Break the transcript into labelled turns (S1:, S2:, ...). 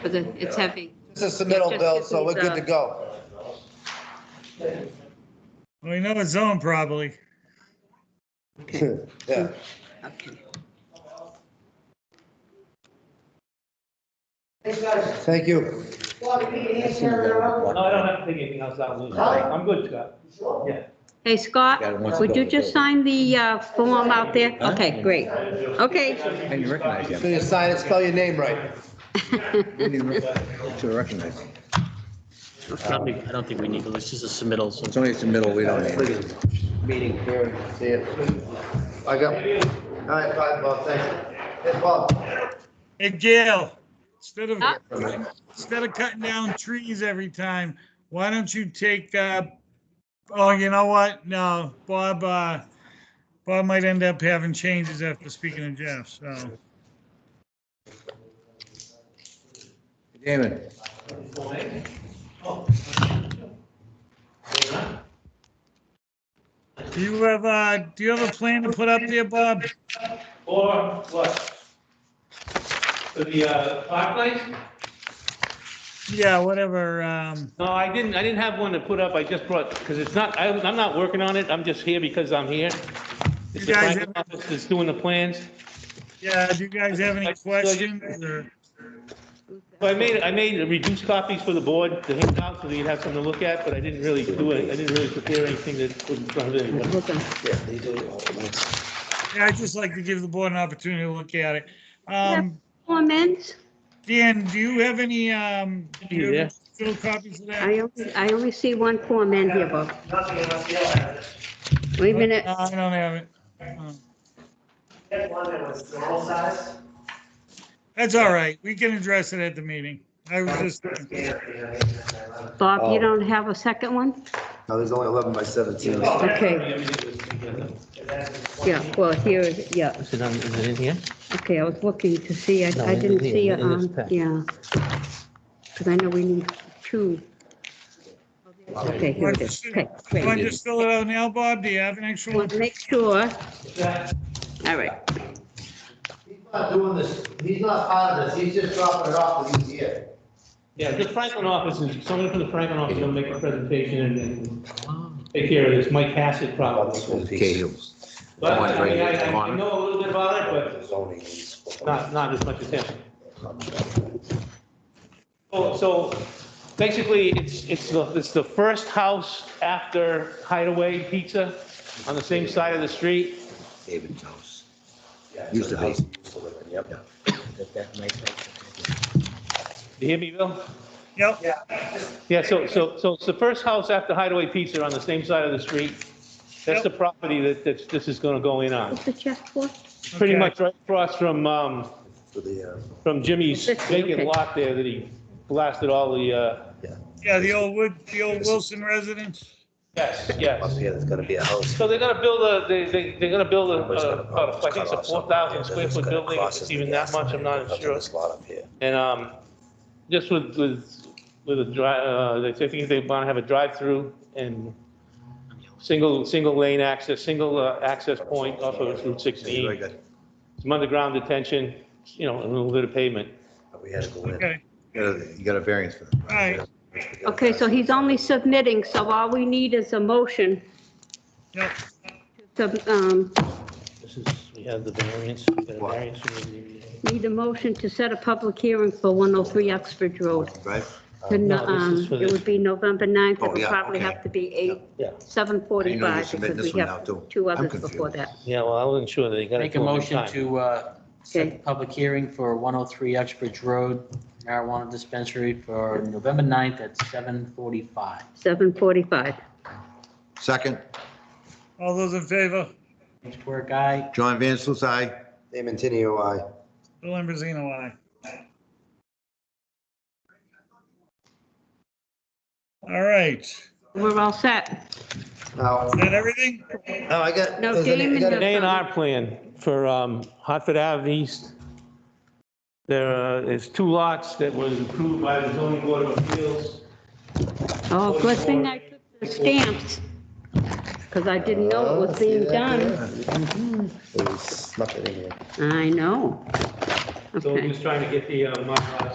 S1: because it- it's heavy.
S2: This is the middle
S1: Yeah, just
S2: bill,
S1: give
S2: so
S1: me
S2: we're good
S1: the-
S2: to go.
S3: We know his zone probably.
S1: Okay,
S2: Yeah.
S1: okay.
S4: Thanks, guys.
S2: Thank you.
S4: Well, we need to answer their own.
S5: No, I don't have to take anything else out, Lou. I'm good, Scott. Yeah.
S1: Hey, Scott, would you just sign the uh, form out there?
S6: Huh?
S1: Okay, great. Okay.
S6: Can you recognize
S2: So
S6: him?
S2: you sign it, spell your name right.
S6: Didn't even rec- To recognize him.
S7: Probably, I don't think we need to, this is a submittal, so.
S6: It's only it's the middle, we don't need it.
S2: Meeting here, see you. I got, all right, bye, Bob, thank you. Hey, Bob.
S3: Hey, Gail, instead of,
S1: Huh?
S3: instead of cutting down trees every time, why don't you take, uh, oh, you know what? No, Bob, uh, Bob might end up having changes after speaking to Jeff, so.
S6: Damon,
S3: Do you have, uh, do you have a plan to put up there, Bob?
S5: Or what? For the uh, park lights?
S3: Yeah, whatever, um,
S5: No, I didn't, I didn't have one to put up. I just brought, because it's not, I- I'm not working on it. I'm just here because I'm here. It's the
S3: You guys
S5: private
S3: have-
S5: office that's doing the plans.
S3: yeah, do you guys have any questions or?
S5: So I made, I made reduced copies for the board to hand out so that you'd have something to look at, but I didn't really do it. I didn't really prepare anything that would in front of anybody.
S1: Looking.
S3: Yeah, I'd just like to give the board an opportunity to look at it. Um,
S1: Comments?
S3: Dan, do you have any, um, do you have any still copies of that?
S1: I only, I only see one form in here, Bob. Wait a minute.
S3: No, I don't have it. Uh, That's all right. We can address it at the meeting. I was just,
S1: Bob, you
S2: Oh.
S1: don't have a second one?
S2: No, there's only 11 by 17.
S1: Okay, yeah, well, here, is- yeah,
S7: Is it on- is it in here?
S1: okay, I was looking to see, I
S7: No,
S1: I didn't
S7: in here,
S1: see,
S7: in this
S1: um,
S7: pack.
S1: yeah. Because I know we need two. Okay, here it is, okay,
S3: you want to
S1: great.
S3: just fill it out now, Bob? Do you have an actual?
S1: Want to make sure, all right.
S2: He's not doing this, he's not part of this, he's just dropping it off and he's here.
S5: Yeah, the Franklin office, is someone from the Franklin office will make a presentation and- and take care of this, Mike Hassett probably.
S6: Cahill's.
S5: But I mean, I, I know a little bit about it, but not, not as much as him. So, so basically, it's, it's the, it's the first house after Hideaway Pizza on the same side of the street.
S6: David's house. Used to be.
S5: Do you hear me, Bill?
S3: Yep.
S5: Yeah, so, so, so it's the first house after Hideaway Pizza on the same side of the street. That's the property that, that this is gonna go in on.
S1: What's the check for?
S5: Pretty
S3: Okay.
S5: much right across from, um,
S6: uh,
S5: from Jimmy's
S1: Fifty, okay.
S5: vacant lot there that he blasted all the, uh,
S3: Yeah, the old wood, the old Wilson residence.
S5: yes, yes.
S6: Yeah, there's gonna be a house.
S5: So they're gonna build a, they, they, they're gonna build a,
S6: Somebody's
S5: a-
S6: gonna
S5: Uh, about, a- I think it's a
S6: cut
S5: four
S6: off something
S5: thousand
S6: here,
S5: square
S6: that's
S5: foot
S6: gonna
S5: building,
S6: cross
S5: if it's
S6: into
S5: even
S6: the
S5: that much, I'm not
S6: Up to
S5: sure.
S6: This lot up here.
S5: And, um, just with, with, with a dri, uh, they think they wanna have a drive-through and single, single lane access, single, uh, access point off of Route
S6: Anyway,
S5: sixteen.
S6: got-
S5: Some underground detention, you know, a little bit of pavement.
S6: We had to go in.
S3: Okay.
S6: You got a- you got a variance for that.
S3: All right.
S1: Okay, so he's only submitting, so all we need is a motion
S3: Yep.
S1: to, um,
S7: This is, we have the variance, we got a
S6: What?
S7: variance. we need to-
S1: need a motion to set a public hearing for 103 Oxford Road.
S6: Right?
S1: To no-
S7: Uh, No, this is
S1: um,
S7: for
S1: It
S7: the-
S1: would be November 9th,
S6: Oh,
S1: it would
S6: yeah,
S1: probably
S6: okay.
S1: have to be 8,
S7: Yeah.
S6: I know you're
S1: 7:45,
S6: submitting
S1: because
S6: this
S1: we
S6: one now
S1: have
S6: too.
S1: two
S6: I'm
S1: others before
S6: confused.
S1: that.
S7: Yeah, well, I wasn't sure that they got it.
S8: Make a
S7: for me in
S8: motion
S7: time.
S8: to uh, set
S1: Okay.
S8: the public hearing for 103 Uxbridge Road marijuana dispensary for November 9th at 7:45.
S1: 7:45.
S6: Second,
S3: All those in favor?
S8: Thanks, poor guy.
S6: John Van Sluis, aye.
S2: Damon Tenio, aye.
S3: Bill Ambrosino, aye. All right. Is
S1: We're all set.
S2: Now,
S3: that everything?
S2: now I got.
S1: No,
S2: there's an- I
S1: Damon
S2: got
S1: does-
S2: a-
S5: An A and R plan for um, Hartford Ave East. There uh, is two lots that was approved by the zoning board of appeals.
S1: Oh, good thing I took the stamps, because I didn't know it was being done.
S2: Oh, we Snuck it in here.
S1: I know.
S5: So we're
S1: Okay.
S5: just trying to get the, uh, Mylar